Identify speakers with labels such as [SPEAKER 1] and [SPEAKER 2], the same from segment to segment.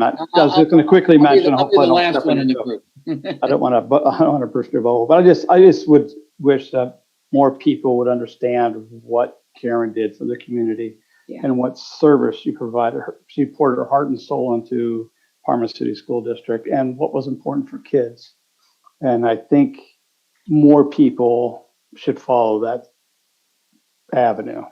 [SPEAKER 1] Not, I was just gonna quickly
[SPEAKER 2] I'll be
[SPEAKER 1] mention,
[SPEAKER 2] the- I'll be
[SPEAKER 1] hopefully
[SPEAKER 2] the
[SPEAKER 1] I don't
[SPEAKER 2] last
[SPEAKER 1] step
[SPEAKER 2] one in
[SPEAKER 1] on
[SPEAKER 2] the
[SPEAKER 1] your toe.
[SPEAKER 2] group.
[SPEAKER 1] I don't wanna, bu- I don't wanna burst your bubble, but I just, I just would wish that more people would understand what Karen did for the community
[SPEAKER 3] Yeah.
[SPEAKER 1] and what service she provided her, she poured her heart and soul into Parma City School District and what was important for kids. And I think more people should follow that avenue.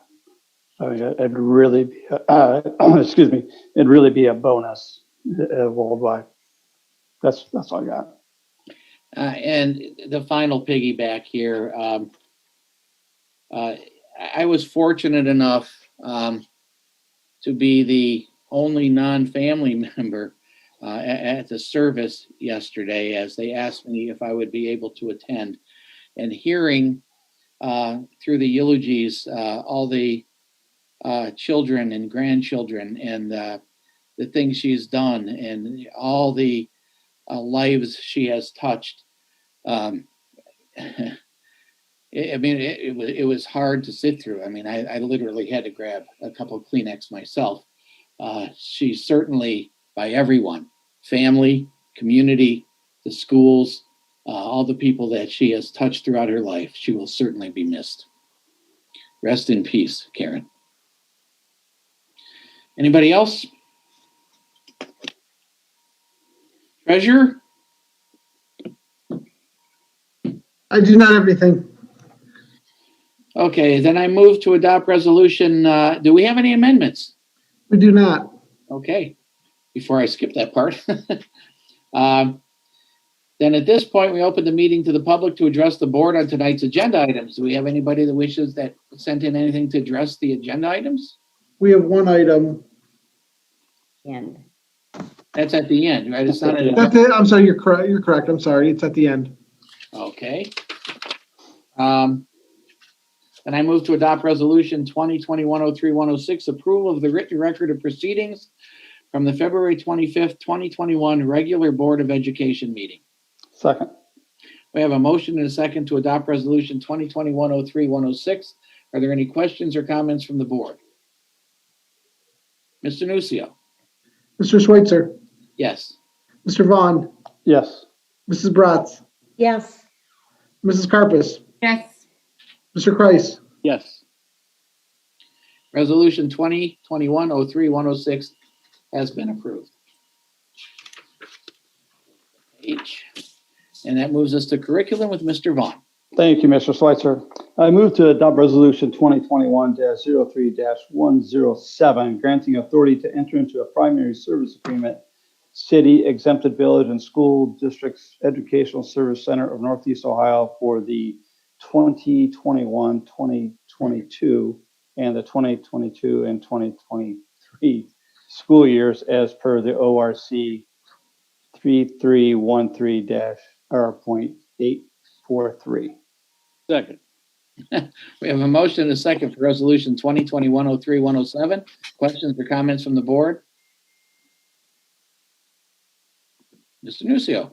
[SPEAKER 1] I mean, it- it'd really, be uh, excuse me, it'd really be a bonus uh, worldwide. That's, that's all I got.
[SPEAKER 2] Uh, and the final piggyback here, um, uh, I- I was fortunate enough, um, to be the only non-family member, uh, a- at the service yesterday as they asked me if I would be able to attend. And hearing, uh, through the eulogies, uh, all the, uh, children and grandchildren and, uh, the things she's done and all the, uh, lives she has touched. Um, I I mean, it, it, was, it was hard to sit through. I mean, I, I literally had to grab a couple of Kleenex myself. Uh, she's certainly by everyone family, community, the schools, uh, all the people that she has touched throughout her life. She will certainly be missed. Rest in peace, Karen. Anybody else? Treasurer?
[SPEAKER 4] I do not have anything.
[SPEAKER 2] Okay, then I move to adopt resolution, uh, do we have any amendments?
[SPEAKER 4] We do not.
[SPEAKER 2] Okay, before I skip that part. Um, Then at this point, we open the meeting to the public to address the board on tonight's agenda items. Do we have anybody that wishes that sent in anything to address the agenda items?
[SPEAKER 4] We have one item.
[SPEAKER 3] end.
[SPEAKER 2] That's at the end, right? It's not at,
[SPEAKER 4] That's it. I'm sorry, you're correct. You're correct. I'm sorry. It's at the end.
[SPEAKER 2] okay. Um, Then I move to adopt resolution 2021-03-106, approval of the written record of proceedings from the February 25th, 2021 regular Board of Education meeting.
[SPEAKER 1] Second,
[SPEAKER 2] We have a motion and a second to adopt resolution 2021-03-106. Are there any questions or comments from the board? Mr. Nucio?
[SPEAKER 4] Mr. Schweitzer,
[SPEAKER 2] Yes.
[SPEAKER 4] Mr. Vaughn,
[SPEAKER 1] yes,
[SPEAKER 4] Mrs. Bratz,
[SPEAKER 3] Yes.
[SPEAKER 4] Mrs. Carpus,
[SPEAKER 3] Yes.
[SPEAKER 4] Mr. Kreis,
[SPEAKER 1] yes,
[SPEAKER 2] Resolution 2021-03-106 has been approved. H. And that moves us to curriculum with Mr. Vaughn.
[SPEAKER 1] Thank you, Mr. Schweitzer. I move to adopt Resolution 2021-03-107, granting authority to enter into a primary service agreement, city exempted village and school districts educational service center of Northeast Ohio for the 2021-2022 and the 2022 and 2023 school years as per the ORC 3313-R.8 four three. Second.
[SPEAKER 2] We have a motion and a second for resolution 2021-03-107. Questions or comments from the board? Mr. Nucio?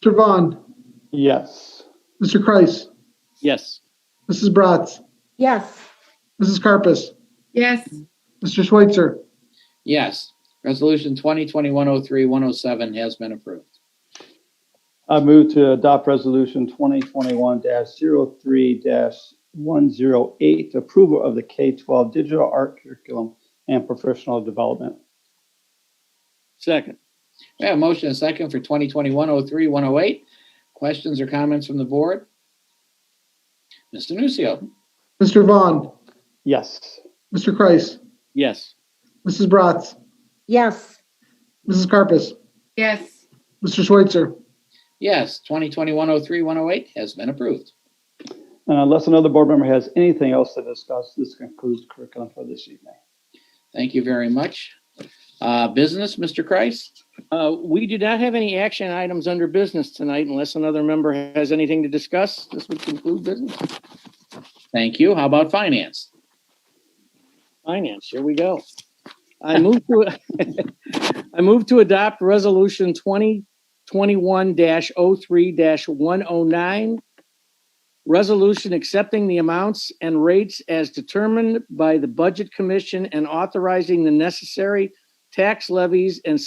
[SPEAKER 4] Mr. Vaughn,
[SPEAKER 1] Yes.
[SPEAKER 4] Mr. Kreis,
[SPEAKER 1] Yes.
[SPEAKER 4] Mrs. Bratz,
[SPEAKER 3] Yes.
[SPEAKER 4] Mrs. Carpus,
[SPEAKER 3] Yes.
[SPEAKER 4] Mr. Schweitzer,
[SPEAKER 2] Yes. Resolution 2021-03-107 has been approved.
[SPEAKER 1] I move to adopt resolution twenty twenty-one 3 one zero eight, approval of the K twelve digital art curriculum and professional development. Second.
[SPEAKER 2] We have a motion and a second for 2021-03-108. Questions or comments from the board? Mr. Nucio?
[SPEAKER 4] Mr. Vaughn,
[SPEAKER 1] Yes.
[SPEAKER 4] Mr. Kreis,
[SPEAKER 1] Yes.
[SPEAKER 4] Mrs. Bratz,
[SPEAKER 3] Yes.
[SPEAKER 4] Mrs. Carpus,
[SPEAKER 3] Yes.
[SPEAKER 4] Mr. Schweitzer,
[SPEAKER 2] Yes. 2021-03-108 has been approved.
[SPEAKER 1] And unless another board member has anything else to discuss, this concludes curriculum for this evening.
[SPEAKER 2] Thank you very much. Uh, Business, Mr. Kreis?
[SPEAKER 5] Uh, We do not have any action items under business tonight unless another member has anything to discuss. This would conclude business.
[SPEAKER 2] Thank you. How about finance?
[SPEAKER 5] Finance, here we go. I move to, I move to adopt Resolution 2021-03-109. Resolution accepting the amounts and rates as determined by the Budget Commission and authorizing the necessary tax levies and